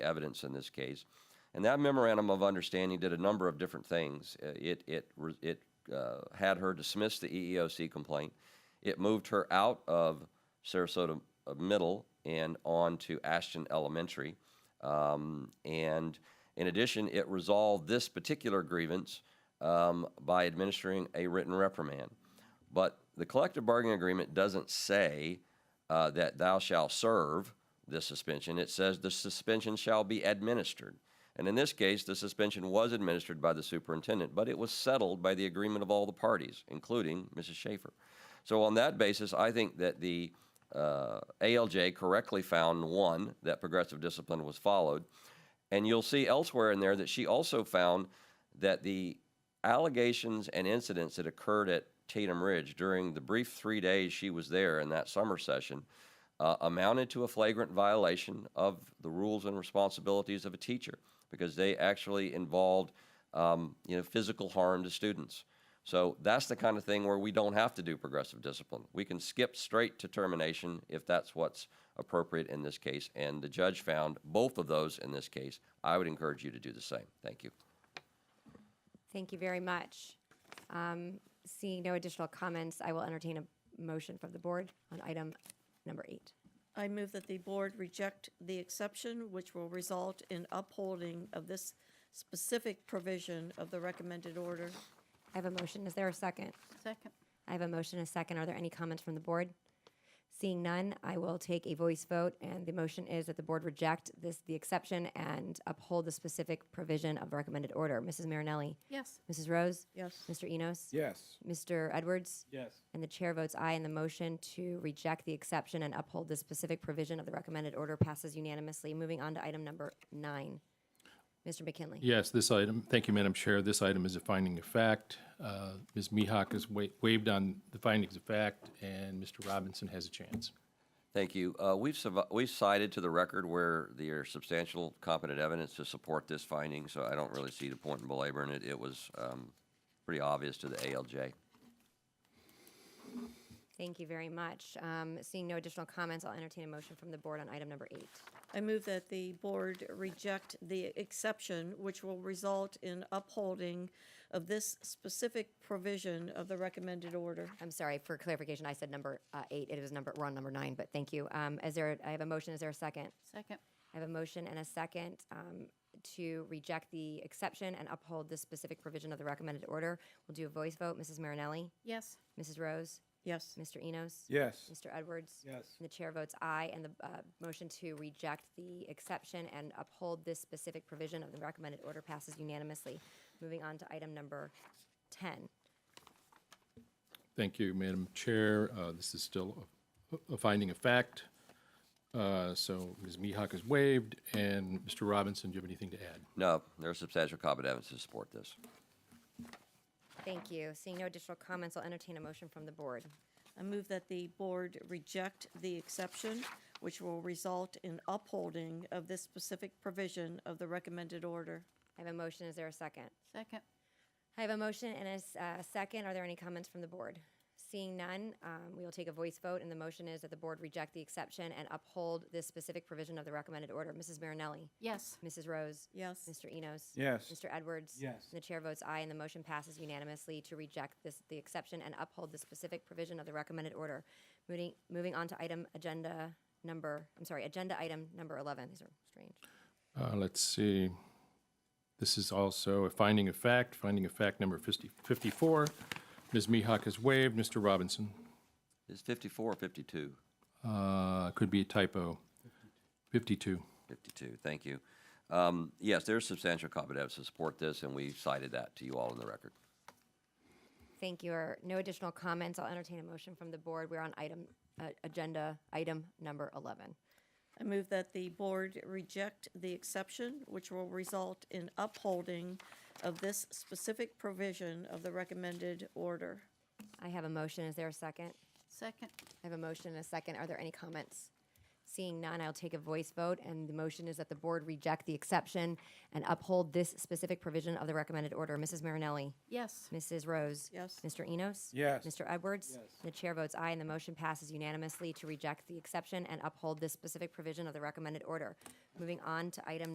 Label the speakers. Speaker 1: evidence in this case. And that memorandum of understanding did a number of different things. Uh, It, it, re- it uh, had her dismiss the E EEOC complaint. It moved her out of Sarasota uh, Middle and on to Ashton Elementary. Um, and in addition, it resolved this particular grievance um, by administering a written reprimand. But the collective bargaining agreement doesn't say uh, that thou shalt serve this suspension. It says the suspension shall be administered. And in this case, the suspension was administered by the superintendent, but it was settled by the agreement of all the parties, including Mrs. Schaefer. So, on that basis, I think that the uh, ALJ correctly found one, that progressive discipline was followed. And you'll see elsewhere in there that she also found that the allegations and incidents that occurred at Tatum Ridge during the brief three days she was there in that summer session uh, amounted to a flagrant violation of the rules and responsibilities of a teacher because they actually involved um, you know physical harm to students. So that's the kind of thing where we don't have to do progressive discipline. We can skip straight to termination if that's what's appropriate in this case. And the judge found both of those in this case. I would encourage you to do the same. Thank you.
Speaker 2: Thank you very much. Um, Seeing no additional comments, I will entertain a motion from the board on item number eight.
Speaker 3: I move that the board reject the exception, which will result in upholding of this specific provision of the recommended order.
Speaker 2: I have a motion. Is there a second?
Speaker 4: Second.
Speaker 2: I have a motion, and a second. Are there any comments from the board? Seeing none, I will take a voice vote, and the motion is that the board reject this, the exception, and uphold the specific provision of the recommended order. Mrs. Marinelli?
Speaker 4: Yes.
Speaker 2: Mrs. Rose?
Speaker 3: Yes.
Speaker 2: Mr. Enos?
Speaker 5: Yes.
Speaker 2: Mr. Edwards?
Speaker 5: Yes.
Speaker 2: And the chair votes aye, and the motion to reject the exception and uphold the specific provision of the recommended order passes unanimously. Moving on to item number nine. Mr. McKinley.
Speaker 6: Yes, this item, thank you, Madam Chair. This item is a finding of fact. Uh, Ms. Mihawk has wa- waived on the findings of fact, and Mr. Robinson has a chance.
Speaker 1: Thank you. Uh, We've, suv- we've cited to the record where there are substantial competent evidence to support this finding, so I don't really see the point in belaboring it. It was um, pretty obvious to the ALJ.
Speaker 2: Thank you very much. Um, Seeing no additional comments, I'll entertain a motion from the board on item number eight.
Speaker 3: I move that the board reject the exception, which will result in upholding of this specific provision of the recommended order.
Speaker 2: I'm sorry, for clarification, I said number uh, eight. It was number, we're on number nine, but thank you. Um, Is there, I have a motion, is there a second?
Speaker 4: Second.
Speaker 2: I have a motion and a second um, to reject the exception and uphold the specific provision of the recommended order. We'll do a voice vote. Mrs. Marinelli?
Speaker 4: Yes.
Speaker 2: Mrs. Rose?
Speaker 3: Yes.
Speaker 2: Mr. Enos?
Speaker 5: Yes.
Speaker 2: Mr. Edwards?
Speaker 5: Yes.
Speaker 2: And the chair votes aye, and the uh, motion to reject the exception and uphold this specific provision of the recommended order passes unanimously. Moving on to item number 10.
Speaker 6: Thank you, Madam Chair. Uh, This is still a a finding of fact. Uh, So Ms. Mihawk has waived, and Mr. Robinson, do you have anything to add?
Speaker 1: No, there's substantial competent evidence to support this.
Speaker 2: Thank you. Seeing no additional comments, I'll entertain a motion from the board.
Speaker 3: I move that the board reject the exception, which will result in upholding of this specific provision of the recommended order.
Speaker 2: I have a motion. Is there a second?
Speaker 4: Second.
Speaker 2: I have a motion and a s- uh, second. Are there any comments from the board? Seeing none, um, we will take a voice vote, and the motion is that the board reject the exception and uphold this specific provision of the recommended order. Mrs. Marinelli?
Speaker 4: Yes.
Speaker 2: Mrs. Rose?
Speaker 3: Yes.
Speaker 2: Mr. Enos?
Speaker 5: Yes.
Speaker 2: Mr. Edwards?
Speaker 5: Yes.
Speaker 2: And the chair votes aye, and the motion passes unanimously to reject this, the exception and uphold the specific provision of the recommended order. Moving, moving on to item agenda number, I'm sorry, agenda item number 11. These are strange.
Speaker 6: Uh, Let's see. This is also a finding of fact, finding of fact number 50 54. Ms. Mihawk has waived. Mr. Robinson,
Speaker 1: Is 54 or 52?
Speaker 6: uh, could be a typo. 52.
Speaker 1: 52, thank you. Um, Yes, there's substantial competent evidence to support this, and we cited that to you all in the record.
Speaker 2: Thank you. Are no additional comments? I'll entertain a motion from the board. We're on item, uh, agenda item number 11.
Speaker 3: I move that the board reject the exception, which will result in upholding of this specific provision of the recommended order.
Speaker 2: I have a motion. Is there a second?
Speaker 4: Second.
Speaker 2: I have a motion and a second. Are there any comments? Seeing none, I'll take a voice vote, and the motion is that the board reject the exception and uphold this specific provision of the recommended order. Mrs. Marinelli?
Speaker 4: Yes.
Speaker 2: Mrs. Rose?
Speaker 3: Yes.
Speaker 2: Mr. Enos?
Speaker 5: Yes.
Speaker 2: Mr. Edwards?
Speaker 5: Yes.
Speaker 2: The chair votes aye, and the motion passes unanimously to reject the exception and uphold this specific provision of the recommended order. Moving on to item